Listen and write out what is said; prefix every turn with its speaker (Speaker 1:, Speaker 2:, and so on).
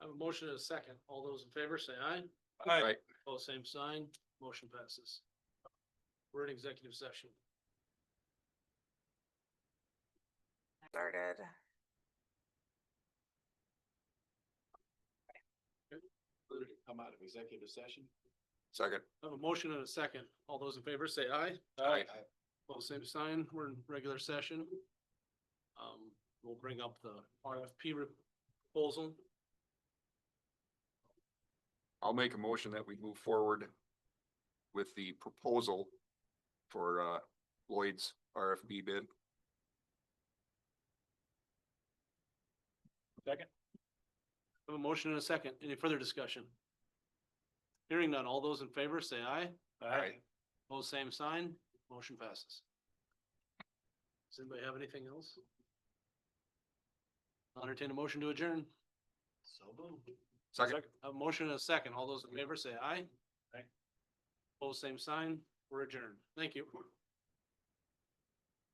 Speaker 1: motion and a second. All those in favor say aye.
Speaker 2: Aye.
Speaker 3: Right.
Speaker 1: All same sign, motion passes. We're in executive session.
Speaker 4: started.
Speaker 2: Come out of executive session.
Speaker 3: Second.
Speaker 1: I have a motion and a second. All those in favor say aye.
Speaker 3: Aye.
Speaker 1: All same sign, we're in regular session. Um, we'll bring up the RFP re- proposal.
Speaker 3: I'll make a motion that we move forward with the proposal for uh, Lloyd's RFB bid.
Speaker 1: I have a motion and a second. Any further discussion? Hearing none. All those in favor say aye.
Speaker 3: Aye.
Speaker 1: All same sign, motion passes. Does anybody have anything else? I'll Entertain a motion to adjourn. So moved.
Speaker 3: Second.
Speaker 1: A motion and a second. All those in favor say aye.
Speaker 2: Aye.
Speaker 1: Both same sign. We're adjourned. Thank you.